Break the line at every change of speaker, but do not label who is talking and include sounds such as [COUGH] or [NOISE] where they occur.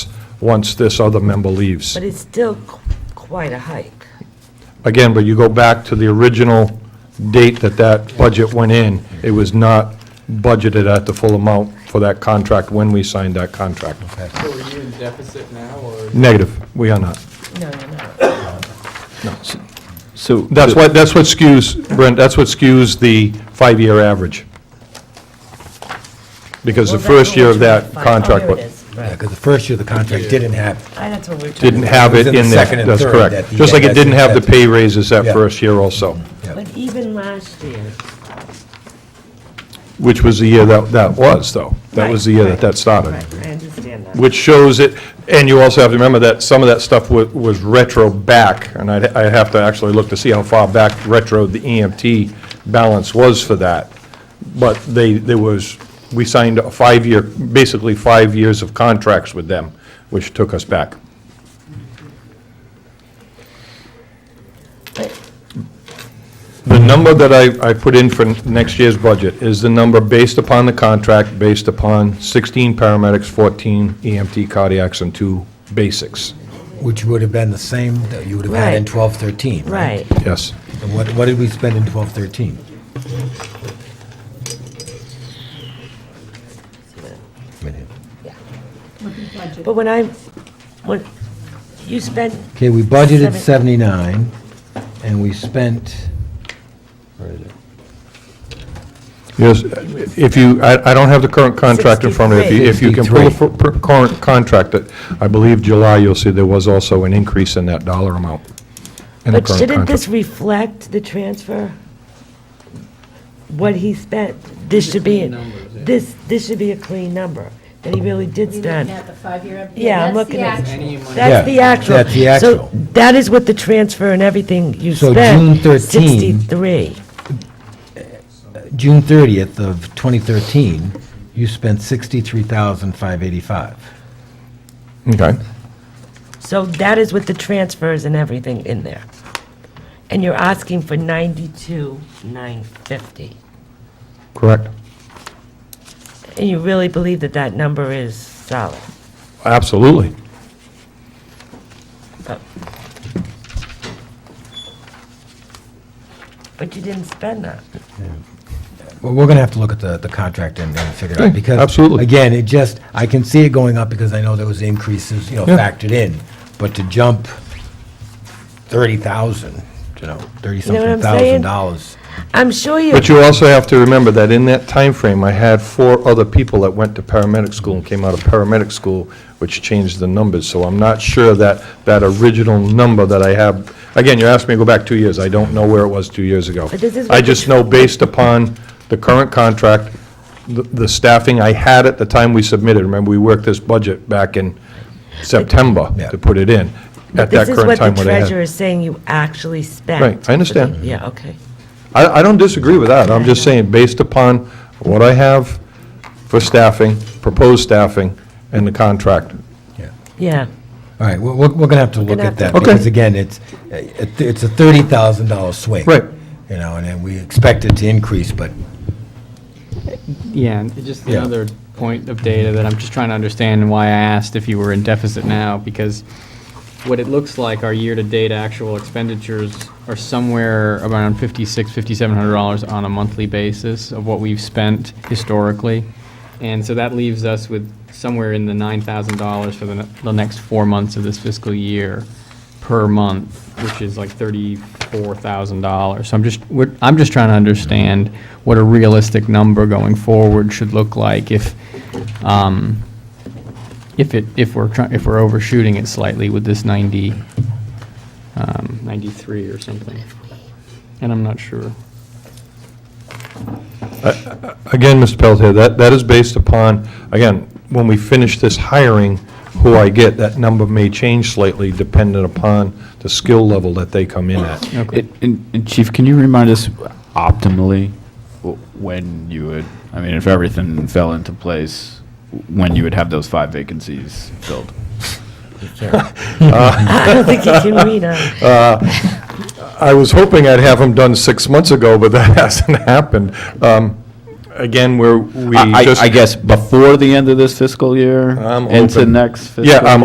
once this other member leaves.
But it's still qu- quite a hike.
Again, but you go back to the original date that that budget went in, it was not budgeted at the full amount for that contract when we signed that contract.
So are you in deficit now, or?
Negative, we are not.
No, no,
So.
That's what, that's what skews, Brent, that's what skews the five-year average. Because the first year of that contract
Oh,
wa-
here it is.
Yeah, because the first year the contract didn't have,
Ah, That's what we were talking
didn't
about.
have it
It was in the
in there.
second and
That's
third that
correct.
the-
Just like it didn't have the pay raises that
Yeah.
first year also,
But even last year,
which was the year that, that was, though. That was the year
Right,
that that started.
right, I understand that.
which shows it, and you also have to remember that some of that stuff wa- was retro back, and I'd, I'd have to actually look to see how far back retro the EMT balance was for that. But they, there was, we signed a five-year, basically five years of contracts with them, which took us back.
But
The number that I, I put in for next year's budget is the number based upon the contract, based upon 16 paramedics, 14 EMT cardiacs, and two basics.
which would have been the same that you would have had in
Right.
12, 13, right?
Right,
Yes.
And what, what did we spend in 12, 13?
but when I, when, you spent,
Okay, we budgeted
Seven-
79, and we spent, where is it?
Yes, if you, I, I don't have the current contract in front of you. If you- If you can pull the
63.
fir- per- current contract, that I believe July, you'll see there was also an increase in that dollar amount. in the
but
current
shouldn't
contract.
this reflect the transfer? What he spent? This should be, this, this should be a clean number, that he really did
You're looking
spend.
at the five-year.
Yeah, I'm
that's the
looking at-
actual.
Any money?
That's
Yeah,
the actual.
that's the actual.
So that is what the transfer and everything you
So
spent.
June 13.
63.
June 30th of 2013, you spent 63,585.
Okay.
So that is with the transfers and everything in there. And you're asking for 92,950.
Correct.
And you really believe that that number is solid?
Absolutely.
But you didn't spend that.
Well, we're going to have to look at the, the contract and and figure it
Okay,
out, because...
absolutely.
Again, it just, I can see it going up because I know there was increases, you know,
Yeah.
factored in, but to jump 30,000, you know,
know what
30-something
I'm saying?
thousand dollars.
I'm sure you,
But you also have to remember that in that time frame, I had four other people that went to paramedic school and came out of paramedic school, which changed the numbers. So I'm not sure that, that original number that I have, again, you asked me to go back two years. I don't know where it was two years ago.
But this is what
I
the-
just know based upon the current contract, the- the staffing I had at the time we submitted. Remember, we worked this budget back in September
Yeah.
to put it in, at that
this is
current
what the
time when I had.
treasurer is saying you actually spent.
Right, I understand.
Yeah, okay.
I, I don't disagree with that, I'm just saying, based upon what I have for staffing, proposed staffing, and the contract.
Yeah. [LAUGHS]
All right, we're, we're going to have to look
gonna
at
have
that,
to-
Okay.
because again, it's, it- it's a $30,000 swing.
Right.
You know, and then we expect it to increase, but
Yeah, and just
Yeah.
another point of data that I'm just trying to understand and why I asked if you were in deficit now, because what it looks like, our year-to-date actual expenditures are somewhere around fifty-six, fifty-seven hundred dollars on a monthly basis of what we've spent historically. And so that leaves us with somewhere in the nine thousand dollars for the, ne- the next four months of this fiscal year per month, which is like thirty-four thousand dollars. So I'm just, we're, I'm just trying to understand what a realistic number going forward should look like if, um, if it, if we're trying, if we're overshooting it slightly with this ninety, um, ninety-three or something. And I'm not sure.
Again, Mr. Pelletier, that, that is based upon, again, when we finish this hiring, who I get, that number may change slightly dependent upon the skill level that they come in at.
Okay.
It- And and Chief, can you remind us optimally w- when you would, I mean, if everything fell into place, when you would have those five vacancies filled?
I don't think you can read on.
I was hoping I'd have them done six months ago, but that [LAUGHS] hasn't happened. Um, Again, we're, we
I, I-
just.
I guess before the end of this fiscal year?
I'm
Into
open.
next fiscal?
Yeah, I'm